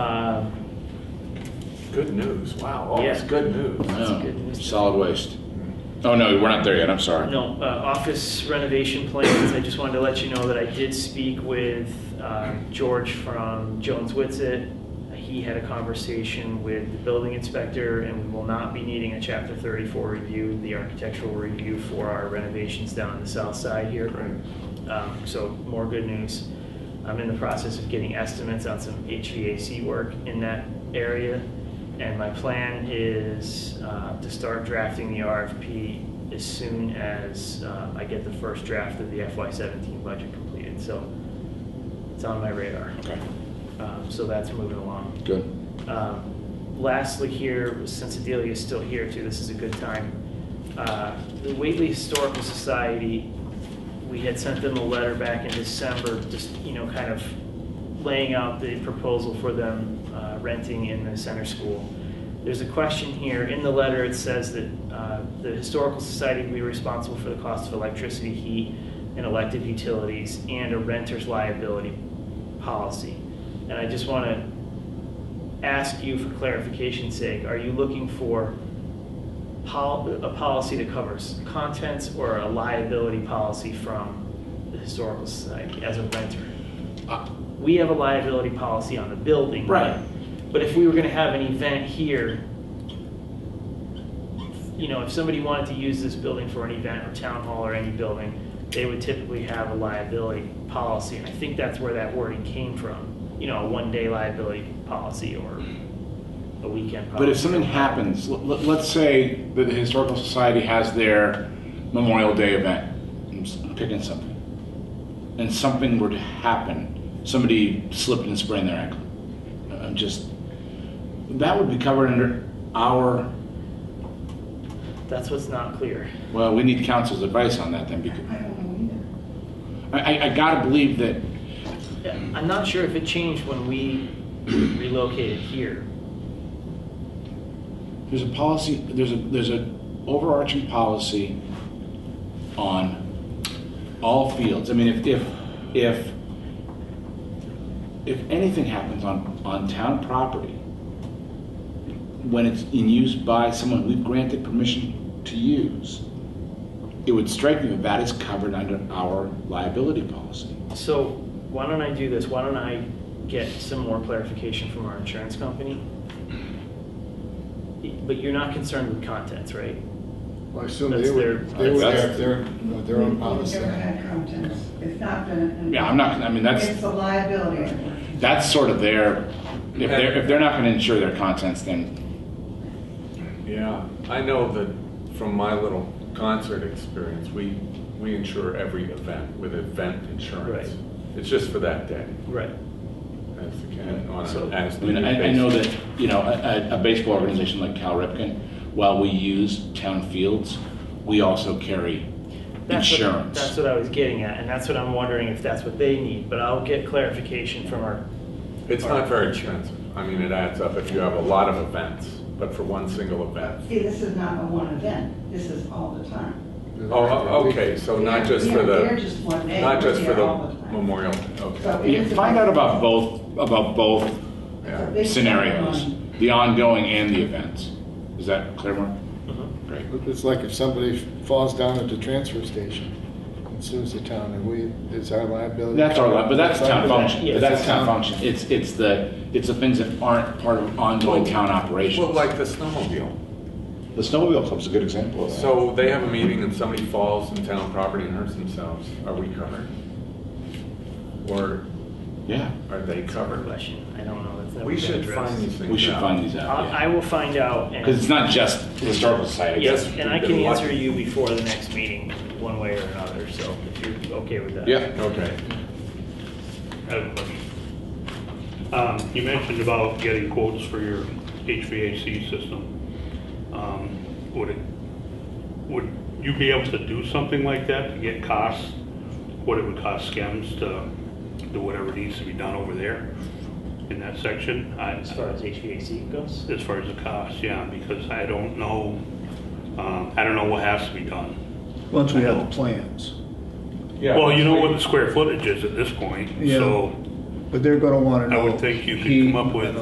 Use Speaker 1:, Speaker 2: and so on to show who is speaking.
Speaker 1: Uh,
Speaker 2: Good news, wow, all this
Speaker 1: Yeah.
Speaker 2: good news.
Speaker 1: That's good news.
Speaker 3: Solid waste. Oh, no, we're not there yet, I'm sorry.
Speaker 1: No, uh, office renovation plans, I just wanted to let you know that I did speak with uh, George from Jones Witsit. He had a conversation with the building inspector, and we will not be needing a Chapter 34 review, the architectural review for our renovations down on the south side here. Um, So more good news. I'm in the process of getting estimates on some HVAC work in that area. And my plan is uh, to start drafting the RFP as soon as uh, I get the first draft of the FY17 budget completed. So it's on my radar.
Speaker 3: Okay,
Speaker 1: Um, So that's moving along.
Speaker 3: good.
Speaker 1: Um, Lastly here, since Adelia is still here too, this is a good time. Uh, The Whately Historical Society, we had sent them a letter back in December, just, you know, kind of laying out the proposal for them uh, renting in the center school. There's a question here, in the letter, it says that uh, the Historical Society will be responsible for the cost of electricity, heat, and elective utilities, and a renter's liability policy. And I just want to ask you for clarification's sake, are you looking for pol- a policy that covers contents or a liability policy from the Historical Society as a renter?
Speaker 3: Uh.
Speaker 1: We have a liability policy on the building.
Speaker 2: Right.
Speaker 1: But if we were gonna have an event here, you know, if somebody wanted to use this building for an event or town hall or any building, they would typically have a liability policy, and I think that's where that wording came from. You know, a one-day liability policy or a weekend policy.
Speaker 3: But if something happens, let, let's say that the Historical Society has their Memorial Day event, I'm s- I'm picking something, and something were to happen, somebody slipped and sprained their ankle. uh, I'm just, that would be covered under our,
Speaker 1: That's what's not clear.
Speaker 3: well, we need council's advice on that then, because
Speaker 4: I don't know either.
Speaker 3: I, I- I gotta believe that
Speaker 1: Yeah, I'm not sure if it changed when we relocated here.
Speaker 3: There's a policy, there's a, there's a overarching policy on all fields. I mean, if, if, if, if anything happens on, on town property, when it's in use by someone we've granted permission to use, it would strike me that that is covered under our liability policy.
Speaker 1: So why don't I do this? Why don't I get some more clarification from our insurance company? But you're not concerned with contents, right?
Speaker 5: Well, I assume
Speaker 1: That's
Speaker 5: they would,
Speaker 1: their-
Speaker 5: they would
Speaker 3: That's-
Speaker 5: have their, uh, their own policy.
Speaker 4: We've never had contents. It's not been.
Speaker 3: Yeah, I'm not, I mean,
Speaker 4: It's
Speaker 3: that's,
Speaker 4: a liability.
Speaker 3: that's sort of their, if they're, if they're not gonna insure their contents, then,
Speaker 2: Yeah, I know that from my little concert experience, we, we insure every event with event insurance.
Speaker 1: Right.
Speaker 2: It's just for that day,
Speaker 1: Right.
Speaker 2: as, and on
Speaker 1: So-
Speaker 2: an as
Speaker 3: I mean,
Speaker 2: needed
Speaker 3: I, I know
Speaker 2: basis.
Speaker 3: that, you know, a, a- a baseball organization like Cal Ripken, while we use town fields, we also carry
Speaker 1: That's what- That's
Speaker 3: insurance.
Speaker 1: what I was getting at, and that's what I'm wondering if that's what they need, but I'll get clarification from our,
Speaker 2: It's not very expensive. I mean, it adds up if you have a lot of events, but for one single event.
Speaker 4: See, this is not a one event. This is all the time.
Speaker 2: Oh, o- okay, so not just for
Speaker 4: Yeah, They're
Speaker 2: the,
Speaker 4: just one day.
Speaker 2: not
Speaker 4: We're
Speaker 2: just for
Speaker 4: there
Speaker 2: the
Speaker 4: all time.
Speaker 2: memorial,
Speaker 4: So
Speaker 2: okay.
Speaker 4: it
Speaker 3: Yeah,
Speaker 4: is a-
Speaker 3: find out about both, about both
Speaker 4: it's a
Speaker 2: Yeah.
Speaker 4: big
Speaker 3: scenarios,
Speaker 4: one.
Speaker 3: the ongoing and the events. Is that clear, Mark? Great.
Speaker 5: It's like if somebody falls down at the transfer station and sues the town, and we, it's our liability.
Speaker 3: That's our, li- but that's town function,
Speaker 1: Yeah.
Speaker 3: but that's town function. It's, it's the, it's the things that aren't part of ongoing town
Speaker 2: Well,
Speaker 3: operations.
Speaker 2: like the snowmobile.
Speaker 3: The snowmobile club's a good example of that.
Speaker 2: So they have a meeting and somebody falls in town property and hurts themselves, are we covered? Or
Speaker 3: Yeah,
Speaker 2: are they covered?
Speaker 1: question, I don't know, that's never
Speaker 2: We
Speaker 1: been
Speaker 2: should find
Speaker 1: addressed.
Speaker 2: these things out.
Speaker 3: we should find these out,
Speaker 1: I I
Speaker 3: yeah.
Speaker 1: will find out, and.
Speaker 3: Because it's not just the Historical Society.
Speaker 1: Yes,
Speaker 2: guess
Speaker 1: and I
Speaker 2: we've
Speaker 1: can
Speaker 2: been lucky.
Speaker 1: answer you before the next meeting, one way or another, so if you're okay with that.
Speaker 3: Yeah.
Speaker 2: Okay.
Speaker 6: I have a question. Um, You mentioned about getting quotes for your HVAC system. Um, Would it, would you be able to do something like that to get costs, what it would cost SCEMS to do whatever needs to be done over there in that section? I-
Speaker 1: As far as HVAC goes?
Speaker 6: As far as the cost, yeah, because I don't know, um, I don't know what has to be done.
Speaker 7: Once we have the plans,
Speaker 2: Yeah.
Speaker 6: Well, you know what the square footage is at this point,
Speaker 7: Yeah.
Speaker 6: so
Speaker 7: but they're gonna wanna
Speaker 6: I
Speaker 7: know.
Speaker 6: would think you could
Speaker 7: heat
Speaker 6: come up with
Speaker 7: and